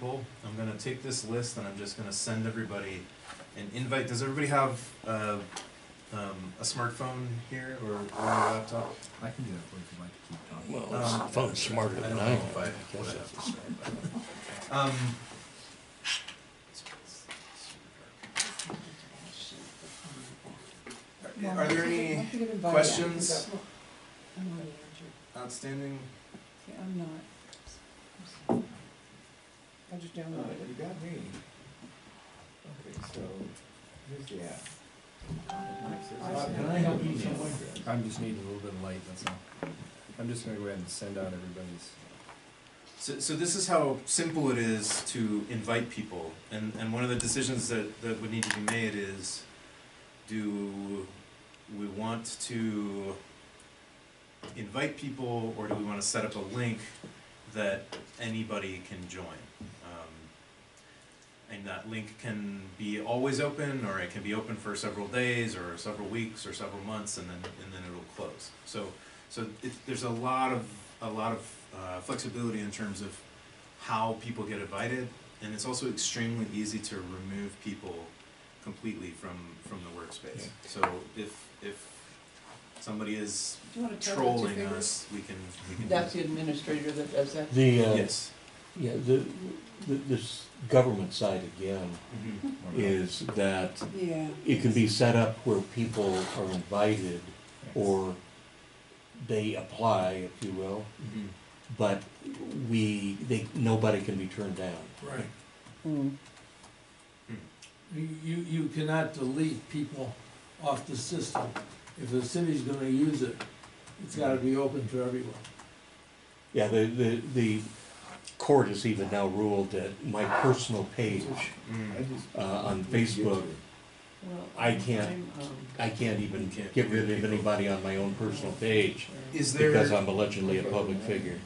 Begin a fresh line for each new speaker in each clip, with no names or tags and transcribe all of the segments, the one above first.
Cool. I'm gonna take this list and I'm just gonna send everybody an invite. Does everybody have uh, um, a smartphone here or, or a laptop?
I can do that for you if you'd like to keep talking.
Well,
Um,
this phone's smarter
I
than
don't
I
know if I-
am.
what I have to say about it. Um, Are there any questions?
I'm not,
outstanding?
yeah, I'm not. I just
Uh,
downloaded
You
it.
got me. Okay, so, here's the app. Bob, Can I help you in some way?
I'm just needing a little bit of light, that's all. I'm just gonna go ahead and send out everybody's.
So, so this is how simple it is to invite people, and, and one of the decisions that, that would need to be made is, do we want to invite people, or do we wanna set up a link that anybody can join? Um, And that link can be always open, or it can be open for several days, or several weeks, or several months, and then, and then it'll close. So, so it, there's a lot of a lot of uh, flexibility in terms of how people get invited, and it's also extremely easy to remove people completely from from the workspace. So if if somebody is
Do you want to tell the two
trolling
figures?
us, we can we can
That's the administrator that does that.
The, uh,
yes.
yeah, the, the, this government side again
Mm-hmm.
Mhm.
is that
Yeah.
it can be set up where people are invited or they apply, if you will,
Mhm.
but we, they, nobody can be turned down.
Right.
Mm.
You, you you cannot delete people off the system. If the city's gonna use it, it's gotta be open to everyone.
Yeah, the, the, the court has even now ruled that my personal page,
Mm-hmm.
Mm.
uh, on Facebook,
Well,
I can't-
I'm, um,
I can't even
Can't
get rid of anybody on my own personal page
Is there
because um, I'm allegedly a public figure.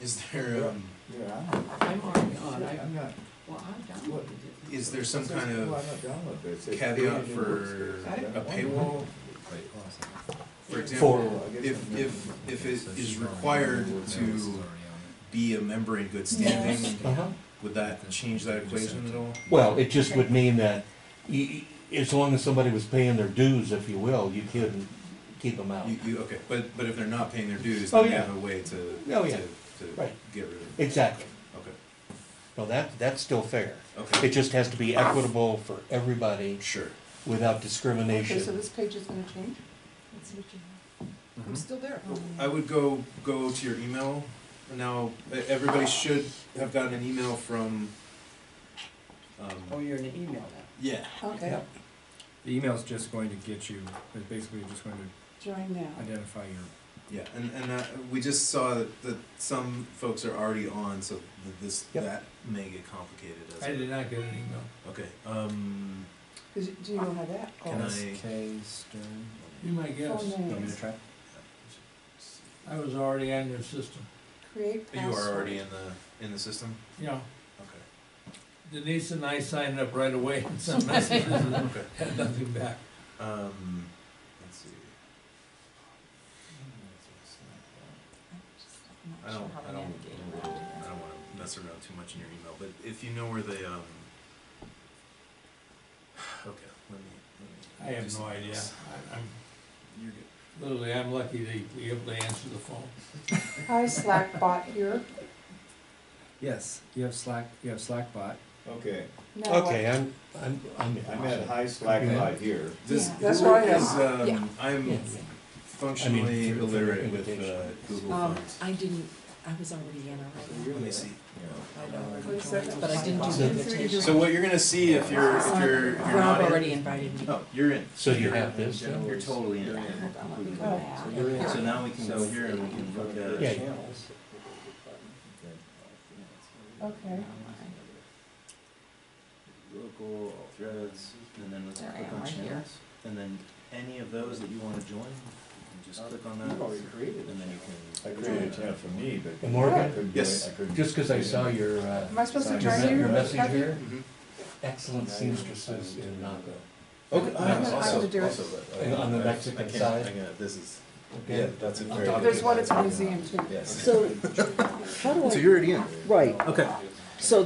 is there um,
Yeah, I'm not.
I'm already on, I,
I'm not,
well, I'm downloaded it.
is there some kind
well,
of
I'm not downloading but it says
caveat
created
for
workspace. I don't
a
want
paywall?
Wait, hold on a second.
For
For-
example,
that. Well, I guess I'm
if if
not-
if
Okay,
it
so she's
is
already on it.
required
No, this is
to
already on
be a member in good standing,
it.
Uh-huh.
would that change that equation at all?
Well, it just would mean that y y as long as somebody was paying their dues, if you will, you couldn't keep them out.
You, you, okay, but, but if they're not paying their dues,
Oh,
then you
yeah.
have a way to,
Oh,
to,
yeah.
to
Right.
get rid of it.
Exactly.
Okay,
Well, that, that's still fair. It
okay,
just has to be equitable for everybody
sure.
without
Okay, so
discrimination.
this page is gonna change?
Mm-hmm.
I'm still there.
Oh, I would go, go to your email. Now, e- everybody should have gotten an email from,
Oh,
um,
you're in an email
yeah.
now. Okay,
Yep.
The email's just going to get you, it's basically just going to
join now.
identify your
Yeah, and, and uh, we just saw that, that some folks are already on, so th- this,
Yep.
that may get complicated as.
I did not get an email.
Okay, um,
Is it- Do you know how that
Can
goes?
I-
SK Stern.
You might guess.
Full
You want me
names,
to try?
I was already on your system.
create
you
password.
are already in the, in the system?
Yeah,
Okay,
Denise and I signed up right away and sent messages and
okay.
had nothing back.
Um, let's
Mm,
see. I don't, I don't, I don't wanna mess around too much in your email, but if you know where the, um, okay, let me, let me.
I
do
have no
something
idea.
else.
I- I'm,
You're good.
literally, I'm lucky to be able to answer the phone.
Hi, Slack bot here.
Yes, you have Slack, you have Slackbot.
Okay,
Now what?
Okay, I'm, I'm, I'm.
I'm at high slack light here.
This,
Yeah.
this
That's where I
one
am.
is,
Yeah.
um, I'm
Yeah.
functionally
through- through
illiterate with, uh,
invitation.
Google
Um,
Fonts.
I didn't, I was already in already,
Let me see.
What is that?
but I didn't do the invitation.
So what you're gonna see if you're, if you're, if you're
Rob
not in,
already invited me.
oh, you're in.
So you have this?
Yeah, You're totally in.
Hold on, let me go
Oh.
back.
So now we can go here and we can look at.
Yeah.
Okay.
Local, all threads, and then let's
There I
click
am,
on
right here.
channels. And then any of those that you wanna join, you can just click on that,
You've already
and
created
then you
I
can.
created a channel for me, but.
Morgan?
I couldn't do it.
Yes.
I couldn't-
Just because I saw your, uh,
Am I supposed to
Sorry,
join
is that
you?
your message
Kathy?
here,
Mhm.
excellent seamstresses in Naco.
Okay,
I have
also,
to
do it.
also, but, uh,
And on the
I- I
Mexican
can't-
side?
I can't, this is,
Okay.
yeah, that's a
I'll
very.
talk
good-
There's one at the museum too.
Yes.
So, how do I,
you're already in.
right,
Okay.
so